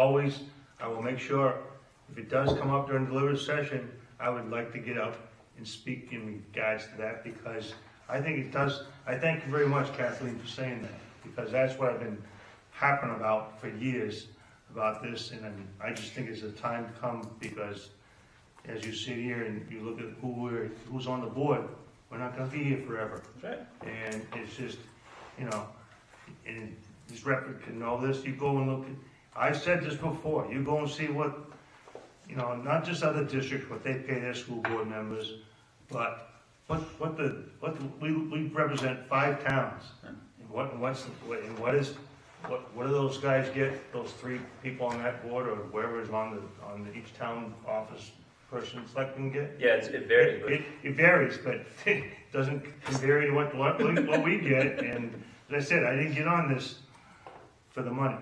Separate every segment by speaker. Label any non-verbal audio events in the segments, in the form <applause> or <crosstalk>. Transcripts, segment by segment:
Speaker 1: always, I will make sure, if it does come up during deliberative session, I would like to get up and speak in regards to that, because I think it does, I thank you very much Kathleen for saying that, because that's what I've been harping about for years, about this, and I'm- I just think it's a time to come, because as you sit here and you look at who we're, who's on the board, we're not gonna be here forever.
Speaker 2: Right.
Speaker 1: And it's just, you know, and this record can know this, you go and look, at- I've said this before, you go and see what, you know, not just other districts, what they pay their school board members, but what, what the, what, the- we, we represent five towns. And what, and what's, the- what- and what is, what, what do those guys get, those three people on that board, or whoever is on the, on the each town office person selecting get?
Speaker 2: Yeah, it's, it varied, but
Speaker 1: It, it varies, but <laughs> it doesn't vary to what, what, we- what we get, and as I said, I didn't get on this for the money.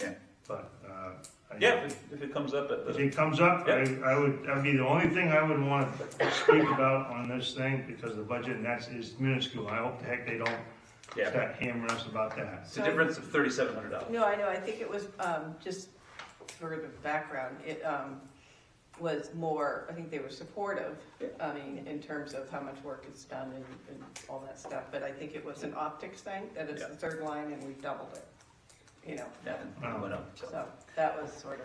Speaker 2: Yeah.
Speaker 1: But, uh. I-
Speaker 2: yeah, if it, if it comes up at
Speaker 1: If
Speaker 2: the,
Speaker 1: it comes up, I, I would, that'd be the only thing I would wanna speak about on this thing, because the budget, and that's, is minuscule, I hope the heck they don't
Speaker 2: yeah,
Speaker 1: start hammering us about that.
Speaker 2: it's a difference of thirty-seven hundred dollars.
Speaker 3: No, I know, I think it was, um, just for the background, it, um, was more, I think they were supportive.
Speaker 2: Yeah.
Speaker 3: I mean, in terms of how much work is done and, and all that stuff, but I think it was an optics thing, that it's the third line and we've doubled it. You know,
Speaker 2: Yeah, and it went up, so.
Speaker 3: so that was sort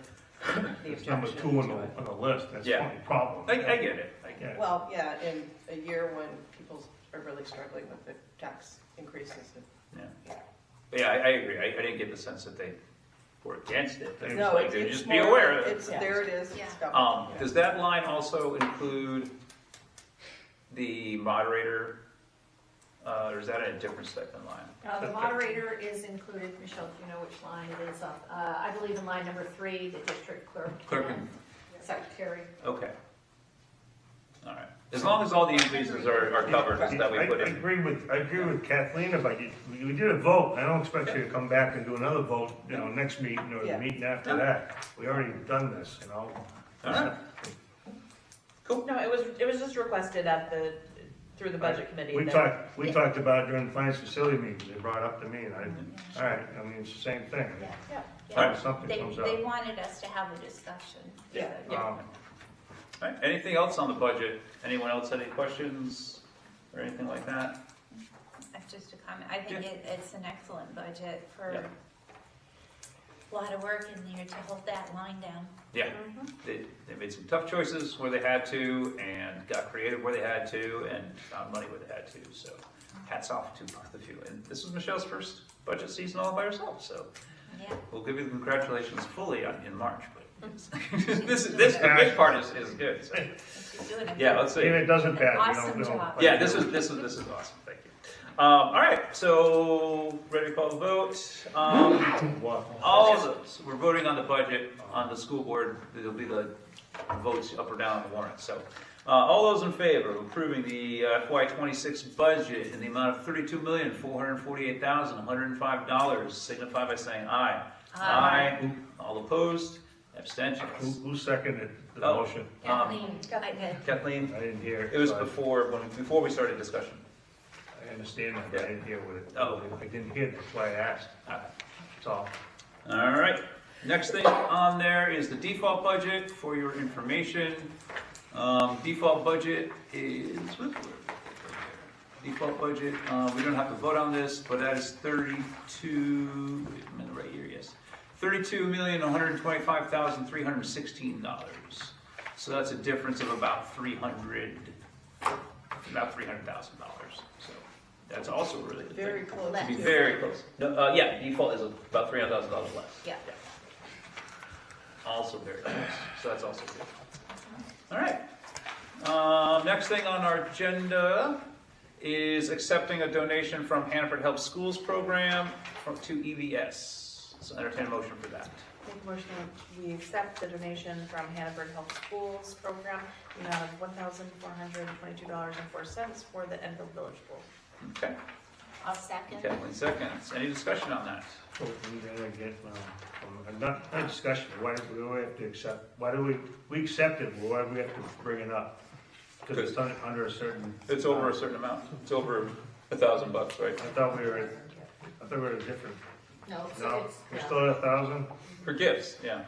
Speaker 3: of the
Speaker 1: It's number
Speaker 3: objection
Speaker 1: two on
Speaker 3: to
Speaker 1: the,
Speaker 3: it.
Speaker 1: on the list, that's the
Speaker 2: Yeah.
Speaker 1: only problem.
Speaker 2: I, I get it, I get it.
Speaker 1: Yeah.
Speaker 3: Well, yeah, in a year when people are really struggling with the tax increases.
Speaker 2: But yeah, I, I agree, I, I didn't get the sense that they were against it, they were just
Speaker 3: No,
Speaker 2: like,
Speaker 3: it's,
Speaker 2: they're
Speaker 3: it's
Speaker 2: just be
Speaker 3: more-
Speaker 2: aware of it.
Speaker 3: It's, there it is, it's doubled.
Speaker 2: Um,
Speaker 3: Yeah.
Speaker 2: does that line also include the moderator, uh, or is that a different stipend line?
Speaker 4: Uh, The moderator is included, Michelle, do you know which line it is? Uh, I believe in line number three, the district clerk.
Speaker 2: Clerk
Speaker 4: and Secretary.
Speaker 2: Okay. All right, as long as all the increases are, are covered that we
Speaker 1: I-
Speaker 2: put
Speaker 1: I
Speaker 2: in,
Speaker 1: agree with, I agree with Kathleen about you, we we did a vote, I don't expect you to come back and do another vote, you know, next meeting or the
Speaker 3: Yeah.
Speaker 1: meeting after that. We already done this, you know?
Speaker 2: all right,
Speaker 5: No, it was, it was just requested at the, through the budget committee.
Speaker 1: We
Speaker 5: that-
Speaker 1: talked, we talked about during the finance facility meetings, they brought it up to me, and I, all right, I mean, it's the same thing.
Speaker 4: Yeah.
Speaker 2: All right.
Speaker 1: If Something
Speaker 6: Mm-hmm. They,
Speaker 1: comes
Speaker 6: they
Speaker 1: up.
Speaker 6: wanted us to have a discussion.
Speaker 3: Yeah.
Speaker 2: yeah. Uh,
Speaker 1: Um,
Speaker 2: All right, anything else on the budget? Anyone else had any questions or anything like that?
Speaker 6: That's just a comment. I think
Speaker 2: Yeah.
Speaker 6: it, it's an excellent budget for
Speaker 2: Yeah.
Speaker 6: a lot of work in there to hold that line down.
Speaker 2: Yeah, they, they made some tough choices where they had to and got creative where they had to and found money where they had to, so hats off to both of you. And this is Michelle's first budget season all by herself, so
Speaker 6: Yeah.
Speaker 2: we'll give you the congratulations fully on- in March, but this, this, the big part is, is good, so,
Speaker 6: She's doing it.
Speaker 2: yeah, let's see.
Speaker 1: Even if it doesn't pass, we
Speaker 6: Awesome
Speaker 1: don't, we don't.
Speaker 6: job.
Speaker 2: Yeah, this is, this is, this is awesome, thank you. Um, all right, so, ready to call the vote? Um, all of those, we're voting on the budget, on the school board, it'll be the votes up or down on the warrant, so. Uh, all those in favor of approving the uh, FY twenty-six budget in the amount of thirty-two million, four hundred and forty-eight thousand, one hundred and five dollars, signify by saying aye.
Speaker 6: Aye.
Speaker 2: All opposed,
Speaker 1: Who,
Speaker 2: abstentions.
Speaker 1: who seconded the
Speaker 2: Oh.
Speaker 1: motion?
Speaker 2: Um,
Speaker 6: Kathleen, I did.
Speaker 1: I
Speaker 2: Kathleen,
Speaker 1: didn't hear.
Speaker 2: it was
Speaker 1: so I-
Speaker 2: before, when, before we started discussion.
Speaker 1: I understand that, but I didn't hear what it.
Speaker 2: Oh.
Speaker 1: I didn't hear, that's why I asked.
Speaker 2: Ah.
Speaker 1: That's all.
Speaker 2: All right, next thing on there is the default budget for your information. Um, default budget is, default budget, uh, we don't have to vote on this, but that is thirty-two, wait a minute, right here, yes. Thirty-two million, one hundred and twenty-five thousand, three hundred and sixteen dollars. So that's a difference of about three hundred, about three hundred thousand dollars, so that's also really good.
Speaker 3: Very close.
Speaker 6: Left.
Speaker 2: Be
Speaker 6: Yes.
Speaker 2: very close. No, uh, yeah, default is about three hundred thousand dollars less.
Speaker 6: Yeah.
Speaker 2: Also very close, so that's also good. All right. Um, next thing on our agenda is accepting a donation from Hanford Help Schools Program from, to EVS. So entertain a motion for that.
Speaker 5: Make a motion that we accept the donation from Hannaford Health Schools Program, the amount of one thousand four hundred and twenty-two dollars and four cents for the Enfield Village Pool.
Speaker 2: Okay,
Speaker 6: I'll second.
Speaker 2: Kathleen seconds. Any discussion on that?
Speaker 1: Well, we gotta get, um, um, Not, not discussion, why do we have to accept, why do we, we accept it, why do we have to bring it up? Because it's under, under a certain.
Speaker 2: It's over a certain amount. It's over a thousand bucks, right?
Speaker 1: I thought we were, at- I thought we were at a different,
Speaker 4: No, so
Speaker 1: no,
Speaker 4: it's-
Speaker 1: we're
Speaker 4: yeah.
Speaker 1: still at a thousand?
Speaker 2: For gifts, yeah.